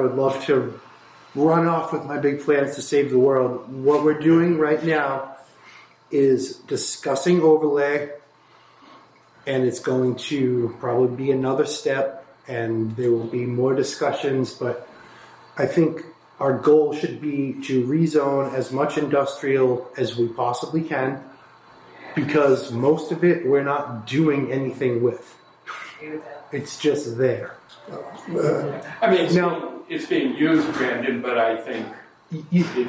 I would love to run off with my big plans to save the world. What we're doing right now is discussing overlay, and it's going to probably be another step, and there will be more discussions. But I think our goal should be to rezone as much industrial as we possibly can because most of it we're not doing anything with. It's just there. I mean, it's, No. being, it's being used, Brandon, but I think You- you- it,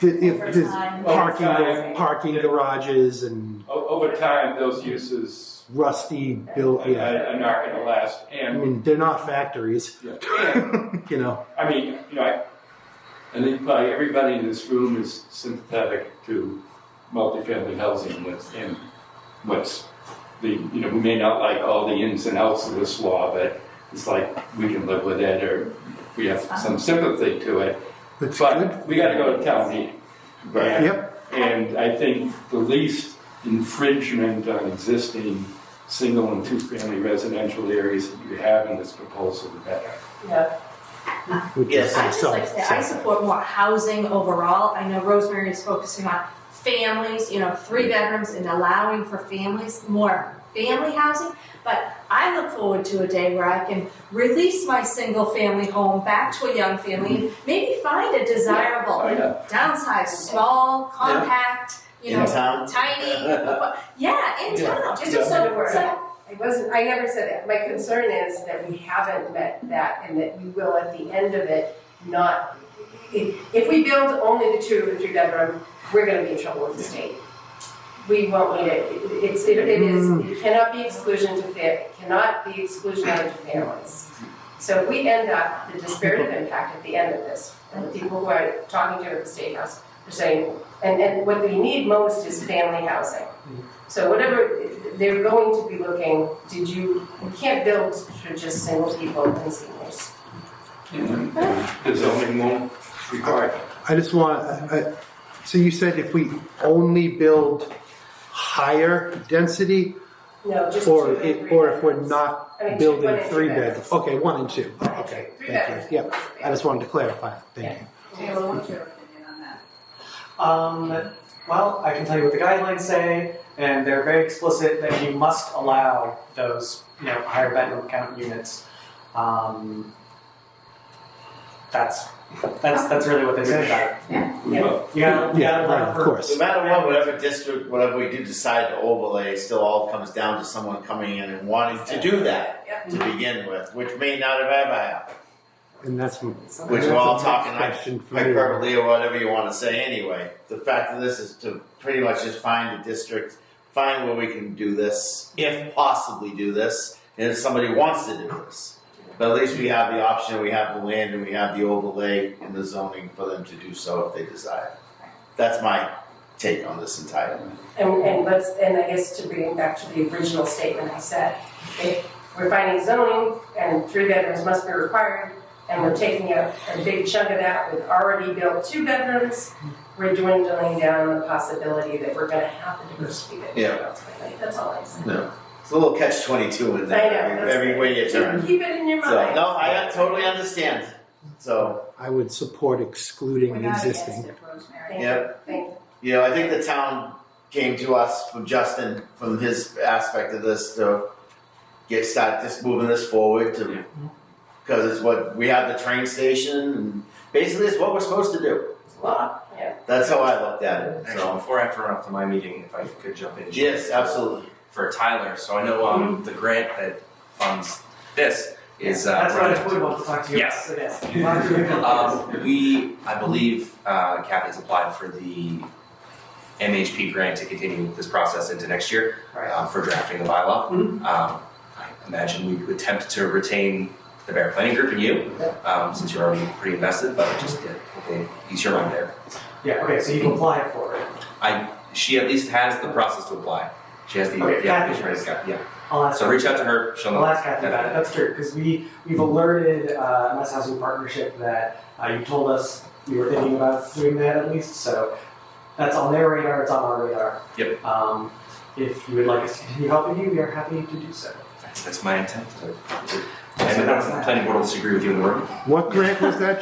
Th- if Over there's time. parking, Over time. parking garages and o- over time, those uses rusty are, built, yeah. are not going to last. I And, mean, they're not factories, yeah. and you know. I mean, you know, I, I think probably everybody in this room is sympathetic to multifamily housing what's in what's the you know we may not like all the ins and outs of this law, but it's like we can live with it or we have some sympathy to it. It's good. But we got to go to town meeting. Right. Yep, And I think the least infringement on existing single and two-family residential areas that you have in this proposal, the better. Yeah. which is Yes. I just so- like to say, I so- support more housing overall. I know Rosemary is focusing on families, you know, three bedrooms and allowing for families, more family housing. But I look forward to a day where I can release my single family home back to a young family, maybe find a desirable, Oh, yeah. downsized, small, compact, you In know, town? tiny, but- yeah, in Yeah. town, just Yeah. so, so, I wasn't, I never said that. My concern is that we haven't met that and that we will at the end of it not, if, if we build only the two and three bedroom, we're gonna be in trouble with the state. We won't need it. It- It's, it it is, it cannot be exclusion to fa, it cannot be exclusionary to families. So if we end up, the disparate impact at the end of this, and the people who are talking to you at the state house, are saying, and, and what we need most is family housing. So whatever, they're going to be looking, did you, you can't build for just single people and seniors. And The zoning won't require it. I just want, I, I- so you said if we only build higher density, No, just two or and three it, or if we're bedrooms. not I mean, two- one building and two three bedrooms. beds, okay, one and two, Oh, okay, Three bedrooms. thank you, yep. I just wanted to clarify, thank you. Taylor, what's your opinion on that? Um, well, I can tell you what the guidelines say, and they're very explicit that you must allow those, you know, higher bedroom count units. Um, that's that's that's really what they say about it. We will. You gotta, you Yeah, gotta right, allow of for- course. No matter what, whatever district, whatever we do decide to overlay, it still all comes down to someone coming in and wanting to do that Yeah. to begin with, which may not have ever happened. And that's m- Which we're all that's talking my hy- question for you. hyperbole or whatever you want to say anyway. The fact of this is to pretty much just find a district, find where we can do this, if possibly do this, and if somebody wants to do this. But at least we have the option, we have the land, and we have the overlay and the zoning for them to do so if they desire. That's my take on this entire thing. And, and let's, and I guess to bring it back to the original statement I said, if we're finding zoning and three bedrooms must be required, and we're taking a, a big chunk of that with already built two bedrooms, we're dwindling down the possibility that we're gonna have the diversity that we Yeah. want ultimately. That's all I said. It's a little catch twenty-two I in know, there, every, that's every way you turn. Keep it in your So, mind. no, I totally understand. So, I would support We're excluding not against existing. it, Rosemary. Thank you. Yep. Thank you. you know, I think the town came to us from Justin, from his aspect of this to get start just moving this forward to, because it's what, we have the train station and basically it's what we're supposed to do. It's a lot, yeah. That's how I looked at it, Actually, so. before I have to run off to my meeting, if I could jump in. Yes, absolutely. For Tyler, so I know um, the grant that funds this is. Uh, That's what I running. totally want to talk to you about Yes. today. Why don't you- Um, we, I believe, uh, Kathy's applied for the MHP grant to continue this process into next year Right. uh, for drafting the bylaw. Mhm. Um, I imagine we would attempt to retain the Bear Planning Group and you, um, since you're already pretty invested, but just to hopefully ease your mind there. Yeah, okay, so you've applied for it. She at least has the process to apply. She has the, Okay, the Kathy. application ready to go. Yeah. I'll ask So reach out to her. She'll know. I'll ask Kathy about it. That's true because we we've alerted uh, MS Housing Partnership that uh, you told us you were thinking about doing that at least. So that's on their radar. It's on our radar. Yep. Um, if you would like us to continue helping you, we are happy to do so. That's my intent. And the planning board will disagree with you in the room. What grant was that,